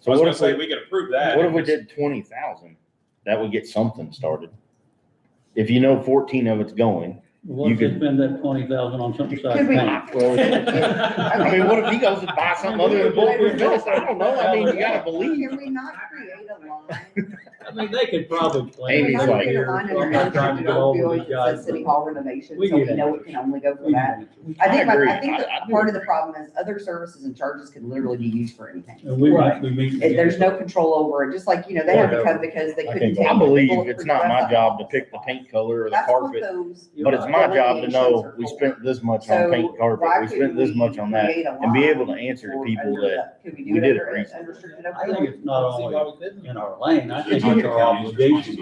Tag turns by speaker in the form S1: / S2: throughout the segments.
S1: So I was
S2: What
S1: gonna
S2: if
S1: say,
S2: we-
S1: we could approve that.
S2: What if
S1: and
S2: we
S1: just-
S2: did twenty thousand? That would get something started. If you know fourteen of it's going,
S3: What if
S2: You
S3: they
S2: could-
S3: spend that twenty thousand on something
S4: Could
S3: besides
S4: we-
S3: paint?
S2: I mean, what if he goes and buys something other than bulletproof vest? I don't know. I mean, you gotta believe.
S4: Can we not create a line?
S3: I mean, they could probably. plan
S2: Amy's
S3: it
S4: Can we not
S2: like-
S4: create
S3: here.
S4: a line
S3: I'm not trying to
S4: under
S3: get over
S4: opioids
S3: these
S4: that
S3: guys.
S4: says city hall renovation,
S3: We
S4: so we
S3: get it.
S4: know it can only go for
S3: We
S4: that?
S3: can-
S4: I think,
S2: agree.
S4: I think
S2: I- I
S4: that
S2: do
S4: part of the
S2: agree.
S4: problem is other services and charges can literally be used for anything.
S3: And we
S4: Right.
S3: might, we meet.
S4: And There's no control over it, just like, you know, they had to come because they
S2: I
S4: couldn't
S2: think,
S4: take.
S2: I
S4: the
S2: believe it's
S4: bulletproof
S2: not my
S4: vest
S2: job to
S4: off.
S2: pick the paint color or the
S4: That's what
S2: carpet,
S4: those-
S2: but it's my job to know we spent this much on
S4: So
S2: paint carpet,
S4: why
S2: we
S4: couldn't
S2: spent this much on that,
S4: create a
S2: and be
S4: line
S2: able to answer to
S4: for
S2: people
S4: under
S2: that,
S4: the- Could we
S2: we
S4: do it
S2: did it
S4: under
S2: recently.
S4: unrestricted
S3: I think
S4: opioid?
S3: it's not only in our lane, I think
S4: Yeah.
S3: it's our obligation.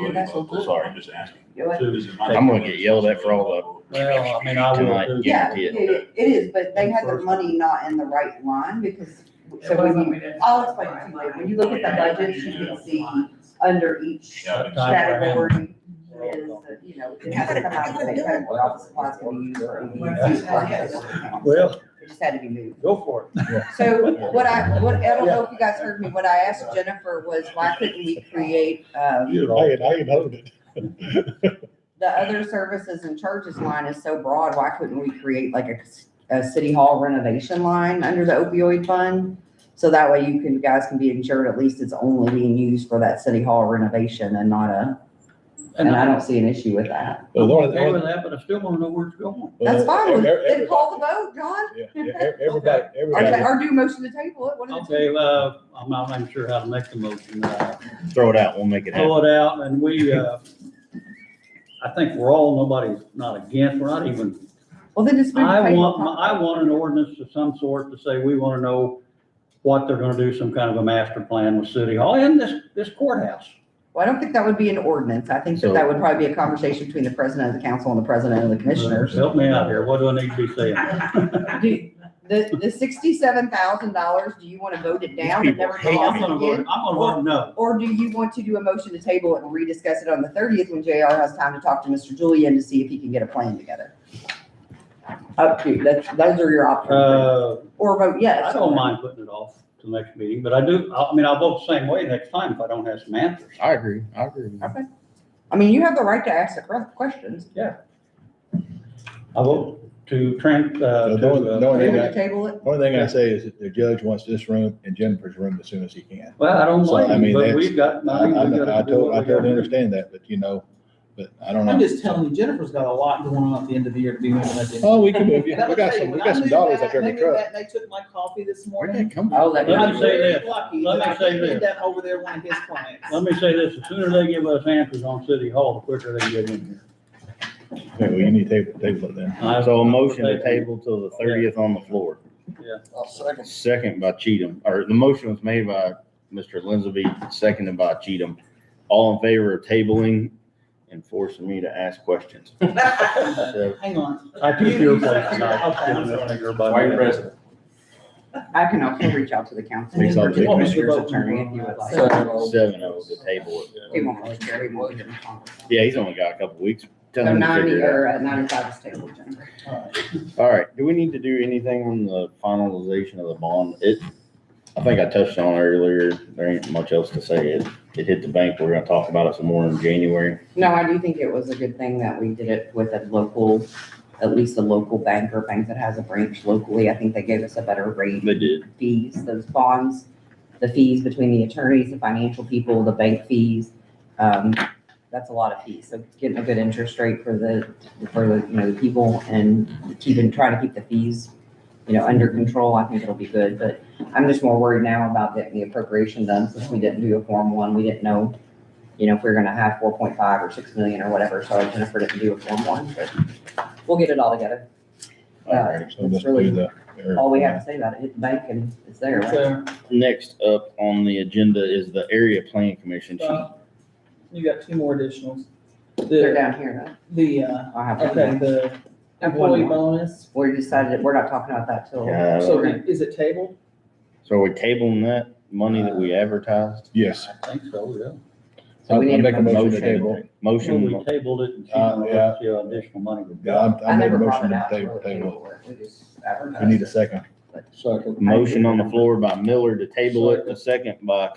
S2: Sorry.
S5: I'm just asking.
S4: You know what?
S3: to-
S2: I'm gonna get yelled at for all
S3: Well, I mean, I
S2: Tonight.
S3: will. too.
S4: Yeah,
S2: guarantee it.
S4: it, it is, but they had their
S3: First.
S4: money not in the right line because, so when you, I'll explain it to you later. When you look at the budgets, you can see under each
S5: Yeah, but-
S4: category is, you know, it has to come out of the same category. Office supplies can be used for any use.
S3: Well,
S4: It just had to be moved.
S3: go for it.
S4: So what I, what, I don't know if you guys heard me, what I asked Jennifer was why couldn't we create, um,
S6: I had, I had heard it.
S4: the other services and charges line is so broad, why couldn't we create like a, c- a city hall renovation line under the opioid fund? So that way you can, guys can be insured, at least it's only being used for that city hall renovation and not a, and I don't see an issue with that.
S6: The only- the
S3: Okay with
S6: only-
S3: that, but I still wanna know where it's going.
S4: That's fine,
S6: Every-
S4: then
S6: every-
S4: call the vote, John,
S6: yeah, yeah, e- Everybody,
S4: or,
S6: everybody.
S4: ta- or do motion to table it, one of the two.
S3: Okay, well, I'm not even sure how to make the motion. Uh,
S2: that, throw it out, we'll make it happen.
S3: Throw it out and we, uh, I think we're all, nobody's not against, we're not even
S4: Well, then just move the
S3: I
S4: table.
S3: want, I want an ordinance of some sort to say, we want to know what they're gonna do, some kind of a master plan with City Hall and this, this courthouse.
S4: Well, I don't think that would be an ordinance, I think that
S2: So-
S4: that would probably be a conversation between the president of the council and the president of the commissioners.
S3: Help me out here, what do I need to be saying?
S4: Do, the, the sixty-seven thousand dollars, do you want to vote it down and
S2: people
S4: never
S2: hate
S4: go
S3: I'm
S4: off
S3: gonna vote, I'm
S4: again?
S3: gonna vote no.
S4: Or do you want to do a motion to table it and rediscuss it on the thirtieth when JR has time to talk to Mr. Julian to see if he can get a plan together? Up to, you. that's, those are your options,
S3: Uh,
S4: or vote yes.
S3: I don't mind putting it off to the next meeting, but I do, I I mean, I'll vote the same way next time if I don't have some answers.
S2: I agree, I agree. with you.
S4: Okay. I mean, you have the right to ask the correct questions.
S3: I vote to tran, uh,
S6: Uh, the only-
S3: to,
S6: the
S3: uh,
S4: Do
S6: only
S4: you
S6: thing
S4: want to
S6: I-
S4: table it?
S6: the only thing I say is that the judge wants this room and Jennifer's room as soon as he can.
S3: well, I don't
S6: So, I
S3: mind,
S6: mean,
S3: but
S6: that's-
S3: we've got,
S6: I,
S3: I mean,
S6: I,
S3: we've
S6: I
S3: got to do what
S6: totally, I
S3: we gotta
S6: totally
S3: do.
S6: understand that, but you know, but I don't
S7: I'm
S6: know.
S7: just telling you, Jennifer's got a lot going on at the end of the year to be moving that thing.
S6: Oh, we can move, yeah, we got some, we got some dollars up there in the truck.
S7: They took my coffee this
S2: Where
S7: morning.
S2: did it come from?
S4: Oh, that.
S3: Let
S7: I'm
S3: me say
S7: very
S3: this.
S7: lucky
S3: Let
S7: that
S3: me
S7: I
S3: say
S7: did
S3: this.
S7: That over there, one of his clients.
S3: Let me say this, the sooner they give us answers on City Hall, the quicker they get in here.
S6: Okay, well, you need to table, table it then.
S3: I-
S2: So a motion to table till the thirtieth on the floor.
S3: Yeah.
S2: second. Second by Cheatham, or the motion was made by Mr. Lindsey, seconded by Cheatham. All in favor of tabling and forcing me to ask questions. So,
S7: Hang on.
S3: I took your place
S7: Okay, I'm
S3: tonight.
S7: sorry.
S3: Everybody-
S4: I can also reach out to the council,
S2: Please, I'll
S4: or to the
S2: take my-
S4: commissioner's attorney if you would like.
S2: Seven of the oh table.
S4: He won't really care, he won't get in the conversation.
S2: Yeah, he's only got a couple weeks. Tell
S4: So
S2: him to
S4: ninety
S2: figure it out.
S4: or uh, ninety-five is tabled, Jennifer.
S2: All right, do we need to do anything on the finalization of the bond? It, I think I touched on it earlier, there ain't much else to say. It, it hit the bank, we're gonna talk about it some more in January.
S4: No, I do think it was a good thing that we did it with a local, at least a local bank or bank that has a branch locally. I think they gave us a better rate
S2: They did.
S4: fees, those bonds, the fees between the attorneys, the financial people, the bank fees. Um, that's a lot of fees. So getting a good interest rate for the, for the, you know, the people and keeping, trying to keep the fees, you know, under control, I think it'll be good. But I'm just more worried now about getting the appropriation done since we didn't do a form one. We didn't know, you know, if we were gonna have four point five or six million or whatever. So Jennifer didn't do a form one, but we'll get it all together.
S2: All right.
S6: So let's do the.
S4: All we have to say about it, hit the bank and it's there, right?
S7: So,
S2: Next up on the agenda is the area plan commission. She-
S7: uh, You got two more additionals.
S4: They're
S7: The,
S4: down here, though.
S7: the, uh,
S4: I'll have to-
S7: okay, the
S4: And one
S7: employee
S4: more.
S7: bonus.
S4: We decided that we're not talking about that till,
S2: Yeah,
S7: So is it tabled?
S2: So are we tabling that money that
S6: Uh,
S2: we advertised?
S6: Yes.
S3: I think so, yeah.
S4: So we
S6: I'll-
S4: need
S6: I'll
S4: a
S6: make motion to
S2: motion.
S6: table.
S3: Well,
S2: Motion,
S3: we tabled it and she
S6: Uh,
S3: wanted
S6: yeah.
S3: to see additional money.
S6: Yeah,
S4: I
S6: I'm, I'm making
S4: never
S6: a
S4: brought
S6: motion
S4: it
S6: to
S4: out.
S6: table,
S4: really
S6: table.
S4: anymore. We just
S6: We need
S4: advertised.
S6: a second.
S2: motion on the floor by Miller to table it, a second by